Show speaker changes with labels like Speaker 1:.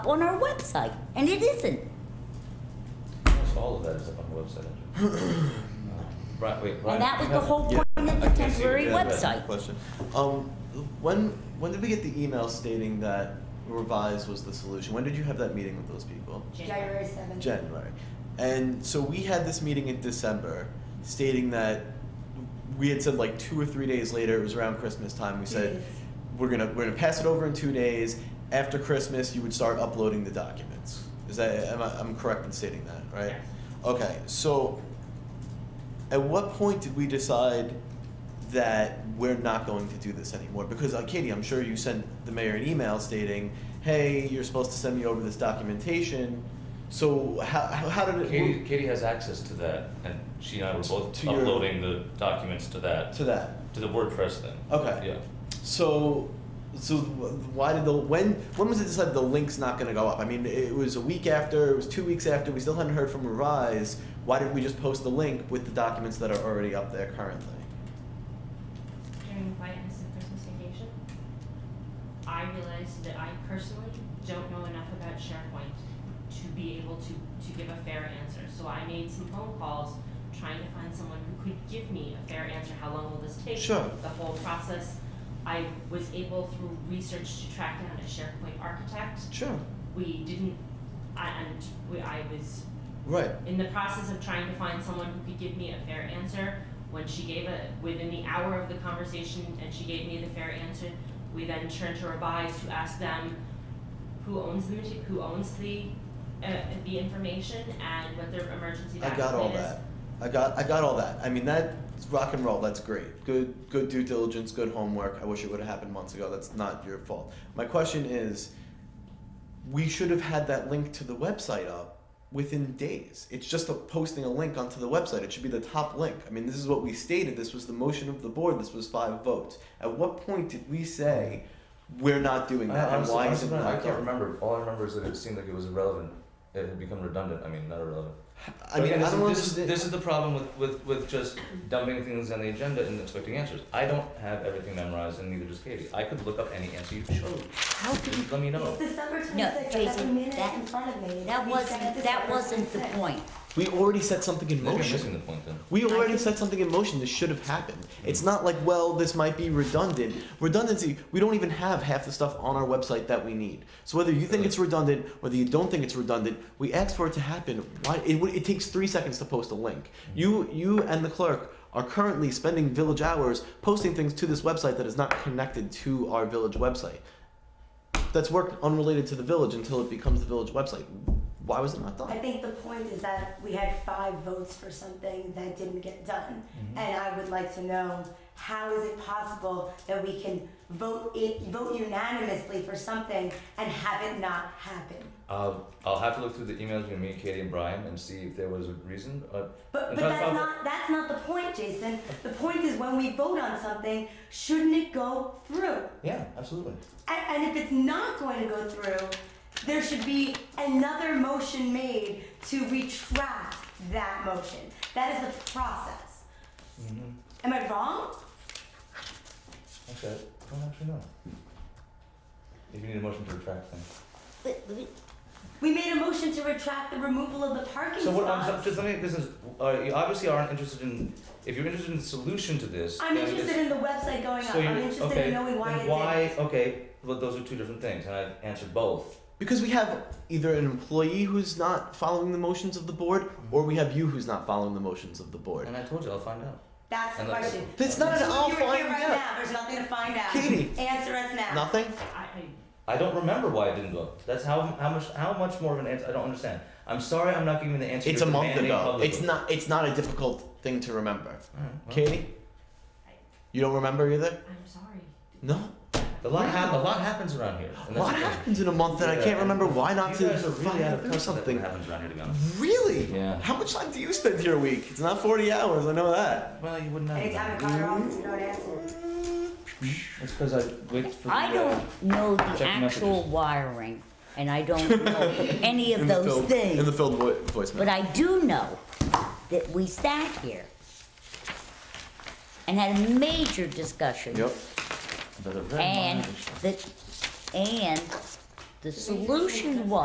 Speaker 1: on our website, and it isn't.
Speaker 2: Almost all of that is up on the website. actually. Uh, Right, wait, right.
Speaker 1: And that was the whole
Speaker 3: Yeah.
Speaker 1: point of the
Speaker 2: I can't see
Speaker 1: temporary
Speaker 2: what that is.
Speaker 1: website.
Speaker 3: Question. Um, when, when did we get the email stating that revise was the solution? When did you have that meeting with those people?
Speaker 4: January seventh.
Speaker 3: January. And so we had this meeting in December stating that we had said like two or three days later, it was around Christmas time, we said,
Speaker 4: Yes.
Speaker 3: we're gonna, we're gonna pass it over in two days. After Christmas, you would start uploading the documents. Is that, am I, I'm correct in stating that, right?
Speaker 5: Yes.
Speaker 3: Okay, so at what point did we decide that we're not going to do this anymore? Because uh, Katie, I'm sure you sent the mayor an email stating, "Hey, you're supposed to send me over this documentation." So how, how did it
Speaker 2: Katie, Katie has access to that, and she and I were both
Speaker 3: To your-
Speaker 2: uploading the documents to that,
Speaker 3: to that?
Speaker 2: to the WordPress thing.
Speaker 3: Okay.
Speaker 2: Yeah.
Speaker 3: So, so why did the when when was it decided the link's not going to go up? I mean, it was a week after, it was two weeks after. We still hadn't heard from Revise. Why didn't we just post the link with the documents that are already up there currently?
Speaker 5: During quietness and Christmas vacation, I realized that I personally don't know enough about SharePoint to be able to, to give a fair answer. So I made some phone calls trying to find someone who could give me a fair answer. How long will this take?
Speaker 3: Sure.
Speaker 5: The whole process. I was able through research to track down a SharePoint architect.
Speaker 3: Sure.
Speaker 5: We didn't, I, and we, I was
Speaker 3: Right.
Speaker 5: in the process of trying to find someone who could give me a fair answer, when she gave a, within the hour of the conversation and she gave me the fair answer, we then turned to revise to ask them who owns the, mate- who owns the, uh, the information and what their emergency
Speaker 3: I
Speaker 5: backup plan is.
Speaker 3: got all that. I got I got all that. I mean that's rock and roll. That's great. Good good due diligence. Good homework. I wish it would have happened months ago. That's not your fault. My question is, we should have had that link to the website up within days. It's just a posting a link onto the website. It should be the top link. I mean this is what we stated. This was the motion of the board. This was five votes. At what point did we say we're not doing that?
Speaker 2: I
Speaker 3: and
Speaker 2: honestly-
Speaker 3: why
Speaker 2: honestly,
Speaker 3: isn't
Speaker 2: Brian,
Speaker 3: that
Speaker 2: I can't
Speaker 3: done?
Speaker 2: remember. All I remember is that it seemed like it was irrelevant. It had become redundant. I mean, not irrelevant.
Speaker 3: I mean
Speaker 2: Again,
Speaker 3: I
Speaker 2: this, is,
Speaker 3: don't
Speaker 2: this, is,
Speaker 3: understand.
Speaker 2: this is the problem with, with, with just dumping things on the agenda and expecting answers. I don't have everything memorized, and neither does Katie. I could look up any answer you chose.
Speaker 1: How can you
Speaker 2: Just let me know.
Speaker 4: It's December twenty-sixth,
Speaker 1: No,
Speaker 4: I have the
Speaker 1: Jason,
Speaker 4: minutes
Speaker 1: that-
Speaker 4: in front of me.
Speaker 1: That
Speaker 4: We said
Speaker 1: wasn't, that
Speaker 4: December
Speaker 1: wasn't the
Speaker 4: 26th.
Speaker 1: point.
Speaker 3: We already set something in
Speaker 2: Maybe I'm
Speaker 3: motion.
Speaker 2: missing the point then.
Speaker 3: We already set something in motion. This should have happened. It's not like, well, this might be redundant. Redundancy, we don't even have half the stuff on our website that we need. So whether you think it's redundant, whether you don't think it's redundant, we asked for it to happen. Why? It, would- it takes three seconds to post a link. You, you and the clerk are currently spending village hours posting things to this website that is not connected to our village website. That's work unrelated to the village until it becomes the village website. Why was it not
Speaker 4: I
Speaker 3: done?
Speaker 4: think the point is that we had five votes for something that didn't get done. And I would like to know, how is it possible that we can vote it, vote unanimously for something and have it not happen?
Speaker 2: Uh, I'll have to look through the emails between me, Katie, and Brian and see if there was a reason. Uh,
Speaker 4: But,
Speaker 2: and try to
Speaker 4: but that's
Speaker 2: find-
Speaker 4: not, that's not the point, Jason. The point is when we vote on something, shouldn't it go through?
Speaker 2: Yeah, absolutely.
Speaker 4: And, and if it's not going to go through, there should be another motion made to retract that motion. That is a process.
Speaker 2: Mm-hmm.
Speaker 4: Am I wrong?
Speaker 2: Okay, I don't actually know. If you need a motion to retract, then.
Speaker 1: But- but-
Speaker 4: We made a motion to retract the removal of the parking
Speaker 2: So what I'm so-
Speaker 4: spots.
Speaker 2: just let me. This is uh, you obviously aren't interested in. If you're interested in the solution to this,
Speaker 4: I'm
Speaker 2: then
Speaker 4: interested
Speaker 2: it's-
Speaker 4: in the website going up.
Speaker 2: so
Speaker 4: I'm
Speaker 2: you-
Speaker 4: interested
Speaker 2: okay,
Speaker 4: in knowing why
Speaker 2: then
Speaker 4: it
Speaker 2: why?
Speaker 4: did.
Speaker 2: Okay, well, those are two different things, and I've answered both.
Speaker 3: Because we have either an employee who's not following the motions of the board, or we have you who's not following the motions of the board.
Speaker 2: And I told you, I'll find out.
Speaker 4: That's the
Speaker 2: And that's-
Speaker 4: question.
Speaker 3: That's not an
Speaker 4: If
Speaker 3: I'll
Speaker 4: you were
Speaker 3: find
Speaker 4: here right
Speaker 3: out.
Speaker 4: now. There's nothing to find out.
Speaker 3: Katie.
Speaker 4: Answer us now.
Speaker 3: Nothing?
Speaker 5: I, I,
Speaker 2: I don't remember why it didn't go. That's how how much how much more of an answer. I don't understand. I'm sorry, I'm not giving you the answer.
Speaker 3: It's a
Speaker 2: you're
Speaker 3: month
Speaker 2: demanding
Speaker 3: ago.
Speaker 2: publicly.
Speaker 3: It's not it's not a difficult thing to remember.
Speaker 2: Alright, well,
Speaker 3: Katie? You don't remember either?
Speaker 5: I'm sorry.
Speaker 3: No.
Speaker 2: A lot, hap- a lot happens around here. and that's
Speaker 3: What
Speaker 2: the thing.
Speaker 3: happens in a month that I
Speaker 2: Yeah,
Speaker 3: can't remember why not
Speaker 2: you
Speaker 3: to
Speaker 2: guys are really out of
Speaker 3: find
Speaker 2: touch
Speaker 3: or
Speaker 2: with
Speaker 3: something?
Speaker 2: What happens around here, to be honest.
Speaker 3: Really?
Speaker 2: Yeah.
Speaker 3: How much time do you spend here a week? It's not 40 hours, I know that.
Speaker 2: Well, you wouldn't know.
Speaker 4: Anytime I call your office, you don't answer.
Speaker 2: It's because I wait for.
Speaker 1: I
Speaker 2: the, uh,
Speaker 1: don't know the
Speaker 2: check
Speaker 1: actual
Speaker 2: messages.
Speaker 1: wiring, and I don't know any of
Speaker 3: In the
Speaker 1: those
Speaker 3: filled, in the
Speaker 1: things.
Speaker 3: filled vo- voicemail.
Speaker 1: But I do know that we sat here and had a major discussion.
Speaker 3: yep.
Speaker 2: But a very
Speaker 1: And
Speaker 2: minor-
Speaker 1: that, and The solution was.